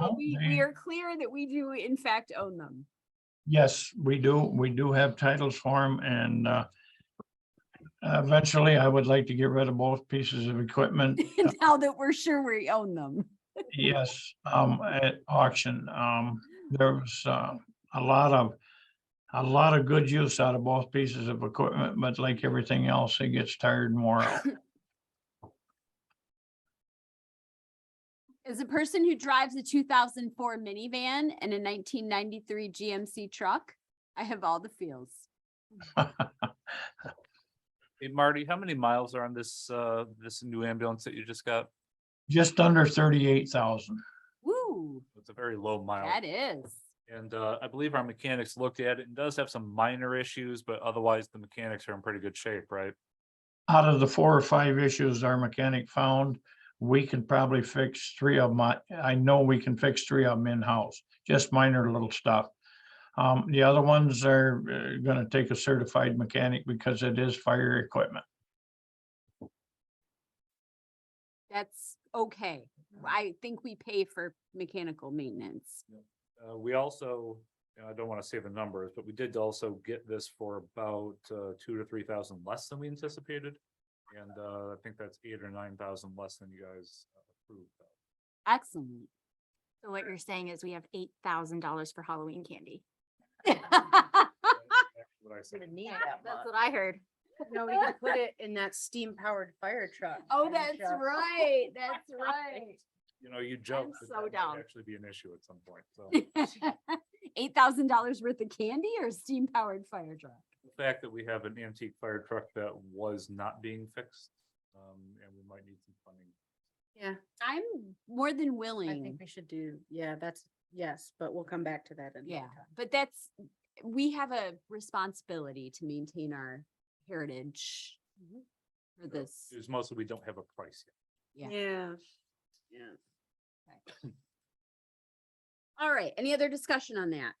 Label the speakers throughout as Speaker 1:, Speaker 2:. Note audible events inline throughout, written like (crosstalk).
Speaker 1: Oh,
Speaker 2: we, we are clear that we do in fact own them. (laughs)
Speaker 1: Yes, we do. We do have titles for them and uh, eventually I would like to get rid of both pieces of
Speaker 2: (laughs)
Speaker 1: equipment.
Speaker 2: Now that we're sure we own them.
Speaker 1: Yes, um, at auction. Um, there was uh, a lot of, a lot of good use out of both pieces of equipment, but like everything else, it gets tired
Speaker 2: (laughs)
Speaker 1: more. (laughs)
Speaker 2: As a person who drives a two thousand four minivan and a nineteen ninety-three GMC truck, I have all the feels.
Speaker 3: Hey Marty, how many miles are on this, uh, this new ambulance that you just got?
Speaker 1: Just under thirty-eight thousand.
Speaker 2: Woo,
Speaker 3: It's a very low mile.
Speaker 2: that is.
Speaker 3: And, uh, I believe our mechanics looked at it and does have some minor issues, but otherwise the mechanics are in pretty good shape, right?
Speaker 1: Out of the four or five issues our mechanic found, we can probably fix three of my, I know we can fix three of them in-house, just minor little stuff. Um, the other ones are uh, gonna take a certified mechanic because it is fire equipment.
Speaker 2: That's okay. I think we pay for mechanical maintenance.
Speaker 3: Uh, we also, you know, I don't want to say the numbers, but we did also get this for about, uh, two to three thousand less than we anticipated. And, uh, I think that's eight or nine thousand less than you guys uh, approved.
Speaker 2: (laughs) Excellent.
Speaker 4: So what you're saying is we have eight thousand dollars for Halloween candy.
Speaker 3: What I said.
Speaker 5: gonna need that
Speaker 4: That's
Speaker 5: much.
Speaker 4: what I heard.
Speaker 5: No, we can put it in that steam powered fire truck.
Speaker 2: Oh,
Speaker 5: and
Speaker 2: that's
Speaker 5: just- (laughs)
Speaker 2: right. That's right.
Speaker 3: You know, you joked.
Speaker 2: I'm
Speaker 3: that
Speaker 2: so
Speaker 3: that might
Speaker 2: down.
Speaker 3: Actually be an issue at some point, so.
Speaker 2: (laughs) Eight thousand dollars worth of candy or steam powered fire truck?
Speaker 3: the fact that we have an antique fire truck that was not being fixed, um, and we might need some funding.
Speaker 5: Yeah,
Speaker 2: I'm more than
Speaker 5: I think
Speaker 2: willing,
Speaker 5: we should do, yeah, that's, yes, but we'll come back to that. another
Speaker 2: yeah,
Speaker 5: time.
Speaker 2: but that's, we have a responsibility to maintain our heritage for
Speaker 3: Yeah.
Speaker 2: this.
Speaker 3: It's mostly we don't have a price yet.
Speaker 2: Yeah.
Speaker 5: Yeah. Yeah.
Speaker 2: All right, any other discussion on that?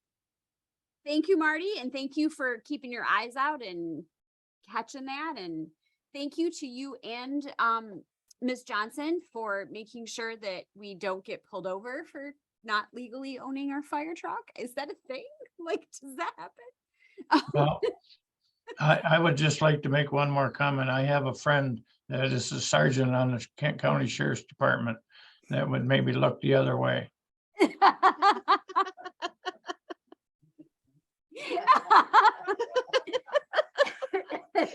Speaker 2: Thank you, Marty, and thank you for keeping your eyes out and catching that, and thank you to you and, um, Ms. Johnson for making sure that we don't get pulled over for not legally owning our fire truck. Is that a thing? (laughs) Like, does that happen?
Speaker 1: Well, I, I would just like to make one more comment. I have a friend that is a sergeant on the Kent County Sheriff's Department that would maybe look the other way.
Speaker 2: (laughs)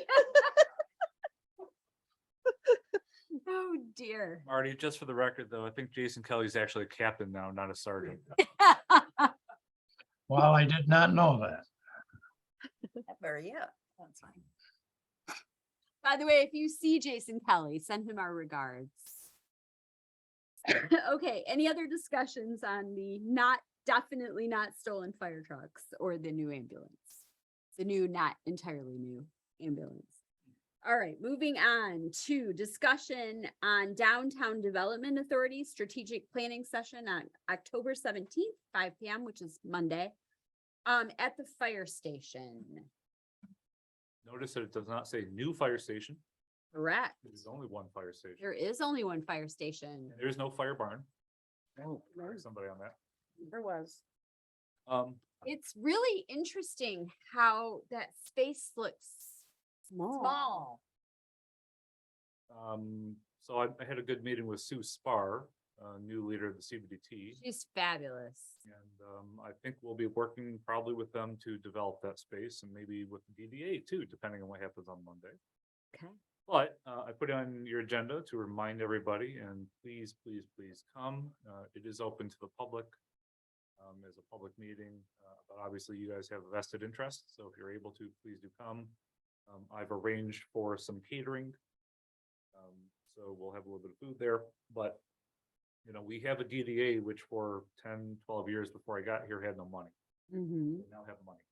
Speaker 2: Oh, dear.
Speaker 3: Marty, just for the record, though, I think Jason Kelly's actually a captain now, not a sergeant.
Speaker 1: Well, I did not know that.
Speaker 2: That's fine. By the way, if you see Jason Kelly, send him our regards. (laughs) Okay, any other discussions on the not, definitely not stolen fire trucks or the new ambulance? The new, not entirely new ambulance. All right, moving on to discussion on Downtown Development Authority Strategic Planning Session on October seventeenth, five P M, which is Monday. Um, at the fire station.
Speaker 3: Notice that it does not say new fire station.
Speaker 2: Correct.
Speaker 3: There's only one fire station.
Speaker 2: There is only one fire station.
Speaker 3: There is no fire barn.
Speaker 5: Oh,
Speaker 3: Correct Somebody on that.
Speaker 5: There was.
Speaker 3: Um,
Speaker 2: It's really interesting how that space looks small.
Speaker 3: um, so I, I had a good meeting with Sue Spar, uh, new leader of the CBDT.
Speaker 2: She's fabulous.
Speaker 3: And um, I think we'll be working probably with them to develop that space and maybe with the DDA too, depending on what happens on Monday.
Speaker 2: Okay.
Speaker 3: But uh, I put it on your agenda to remind everybody and please, please, please come. Uh, It is open to the public. um, As a public meeting, uh, but obviously you guys have a vested interest, so if you're able to, please do come. Um, I've arranged for some catering. um, So we'll have a little bit of food there, but you know, we have a DDA which for 10, 12 years before I got here had no money.
Speaker 2: Mhm.
Speaker 3: We now have money.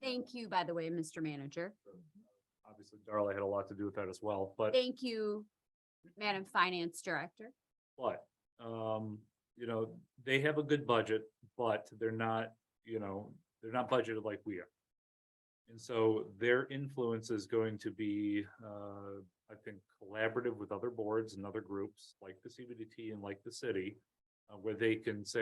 Speaker 2: Thank you, by the way, Mr. Manager.
Speaker 3: So, Obviously, Darla had a lot to do with that as well, but.
Speaker 2: Thank you, Madam Finance Director.
Speaker 3: But, um, you know, they have a good budget, but they're not, you know, they're not budgeted like we are. And so their influence is going to be, uh, I think collaborative with other boards and other groups like the CBDT and like the city. Uh, where they can say,